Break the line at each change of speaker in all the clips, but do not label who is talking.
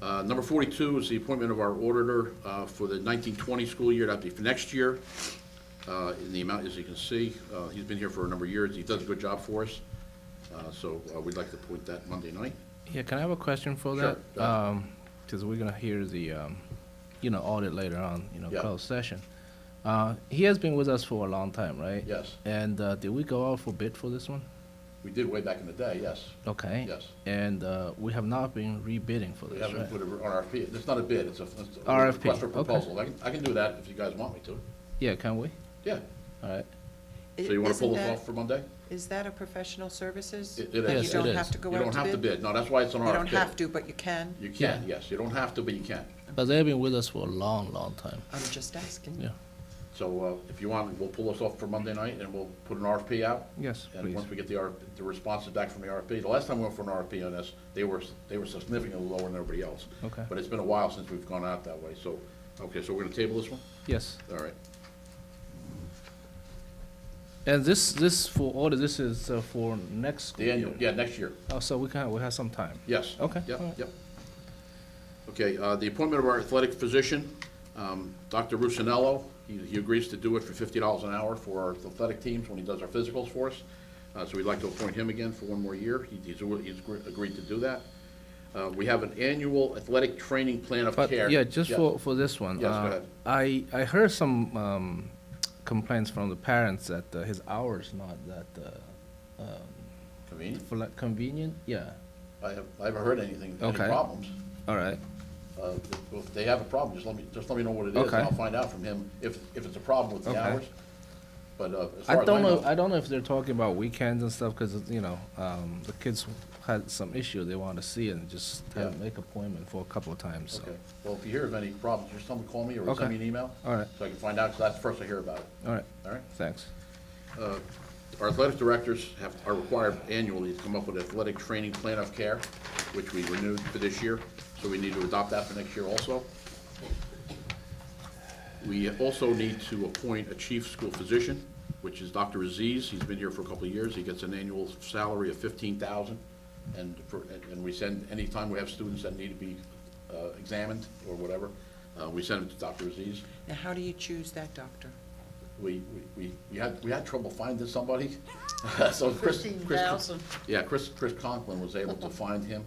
Uh, Number 42 is the appointment of our auditor uh, for the 1920 school year, that'd be for next year, uh, in the amount, as you can see. uh, He's been here for a number of years, he does a good job for us, Uh, so uh, we'd like to appoint that Monday night.
Yeah, can I have a question for
Sure,
that?
go ahead.
Because we're gonna hear the, um, you know, audit later on, you know,
Yeah.
closed session. Uh, He has been with us for a long time, right?
Yes.
And uh, did we go out for bid for this one?
We did way back in the day, yes.
Okay.
Yes.
And uh, we have not been rebidding for
We
this,
haven't
right?
put an RFP, it's not a bid, it's a it's a
RFP,
request for
okay.
proposal. I can- I can do that if you guys want me to.
Yeah, can we?
Yeah.
All right.
So you want to
Isn't
pull this
that-
off for Monday?
Is that a professional services?
It- it
That
is.
Yes,
You
it
don't
is.
have to go
You
out
don't have to bid, no, that's why it's an RFP.
You don't have to, but you can.
You can,
Yeah.
yes, you don't have to, but you can.
But they've been with us for a long, long time.
I'm just asking.
Yeah.
So uh, if you want, we'll pull this off for Monday night, and we'll put an RFP out.
Yes,
And
please.
once we get the RF the responses back from the RFP, the last time we went for an RFP on this, they were, they were significantly lower than everybody else.
Okay.
But it's been a while since we've gone out that way, so, okay, so we're gonna table this one?
Yes.
All right.
And this, this for order, this is uh, for next school
The annual,
year.
yeah, next year,
Oh, so we can, we have some time.
yes.
Okay, all
Yep,
right.
yep. Okay, uh, the appointment of our athletic physician, um, Dr. Rusinello, he he agrees to do it for fifty dollars an hour for our athletic teams when he does our physicals for us. Uh, So we'd like to appoint him again for one more year. He- He's al- he's gr- agreed to do that. Uh, We have an annual athletic training plan of
But,
care.
yeah, just
Yeah.
for, for this one.
Yes, go
uh,
ahead.
I, I heard some um, complaints from the parents that uh, his hour's not that uh, um,
Convenient.
fle- convenient, yeah,
I have- I haven't heard anything, any
Okay.
problems.
all right,
Uh, if- If they have a problem, just let me, just let me know what it is, and
Okay.
I'll find out from him if, if it's a problem with the
Okay.
hours. But uh, as far
I
as I
don't know,
know,
I don't know if they're talking about weekends and stuff, because, you know, um, the kids had some issue they want to see and just had to
Yeah.
make appointment for a couple of times, so.
okay. Well, if you hear of any problems, just someone call me or send
Okay.
me an email.
All right.
So I can find out, because that's the first I hear about it,
All right,
all right?
thanks.
Our athletic directors have, are required annually to come up with an athletic training plan of care, which we renewed for this year, so we need to adopt that for next year also. We also need to appoint a chief school physician, which is Dr. Aziz. He's been here for a couple of years. He gets an annual salary of fifteen thousand. And for, and- and we send, anytime we have students that need to be uh, examined or whatever, uh, we send them to Dr. Aziz.
Now, how do you choose that doctor?
We, we- we, we had, we had trouble finding somebody. So Chris-
Fifteen
Chris-
thousand.
Yeah, Chris, Chris Conklin was able to find him,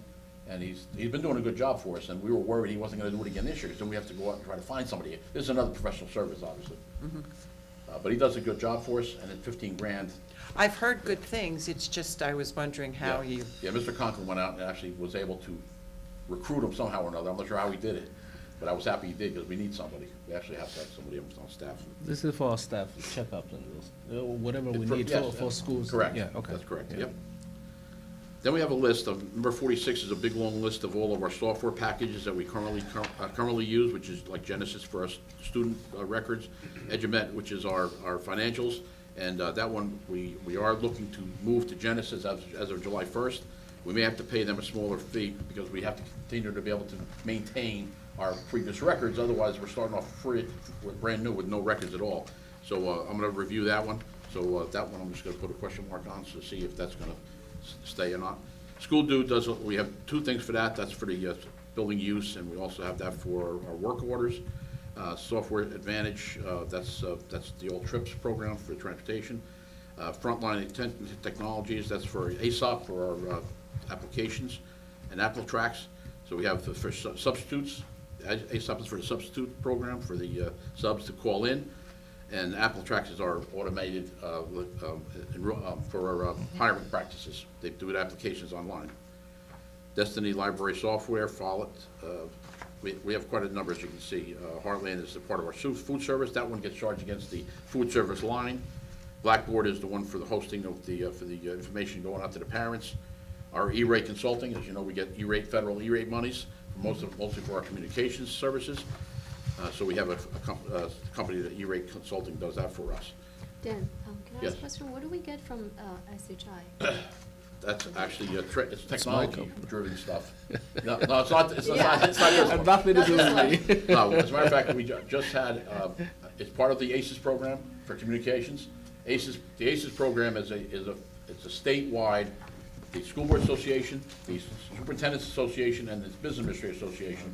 and he's, he's been doing a good job for us, and we were worried he wasn't gonna do it again this year, because then we have to go out and try to find somebody. This is another professional service, obviously.
Mm-hmm.
Uh, but he does a good job for us, and at fifteen grand.
I've heard good things, it's just I was wondering how
yeah.
you,
Yeah, Mr. Conklin went out and actually was able to recruit him somehow or another. I'm not sure how he did it, but I was happy he did, because we need somebody. We actually have to have somebody on staff.
This is for our staff checkup and this, uh, whatever we
It's for-
need for,
yes,
for schools.
Correct.
Yeah, okay.
That's correct,
yeah.
yep. Then we have a list of, number forty-six is a big, long list of all of our software packages that we currently, cur- uh, currently use, which is like Genesis for our s- student uh, records, Edumet, which is our, our financials, and uh, that one, we, we are looking to move to Genesis as, as of July first. We may have to pay them a smaller fee because we have to continue to be able to maintain our previous records, otherwise we're starting off free, we're brand new with no records at all. So uh, I'm gonna review that one, so uh, that one I'm just gonna put a question mark on to see if that's gonna s- stay or not. School due does, we have two things for that, that's for the uh, building use, and we also have that for our work orders. Uh, Software Advantage, uh, that's, uh, that's the old TRIPS program for transportation. Uh, Frontline Intent Technologies, that's for ASOP for our uh, applications, and Apple Tracks. So we have for- for su- substitutes, ASOP is for the substitute program for the uh, subs to call in. And Apple Tracks is our automated, uh, li- um, enro- um, for our uh, hiring practices. They do it applications online. Destiny Library Software, Follett, uh, we, we have quite a number, as you can see. Uh, Heartland is a part of our su- food service, that one gets charged against the food service line. Blackboard is the one for the hosting of the, uh, for the uh, information going out to the parents. Our E-rate consulting, as you know, we get E-rate, federal E-rate monies, most of, mostly for our communications services. Uh, So we have a, a com- uh, company that E-rate Consulting does that for us.
Dan, um, can I
Yes.
ask a question? What do we get from uh, SHI?
That's actually, uh, tre- it's technology-driven stuff. No, no, it's not, it's not, it's not.
Had Nothing to do with me.
No, as a matter of fact, we ju- just had, uh, it's part of the ACES program E for communications. ACES, the ACES program is a, is a, it's a statewide the School Board Association, the Superintendent's Association, and the Business Administrator Association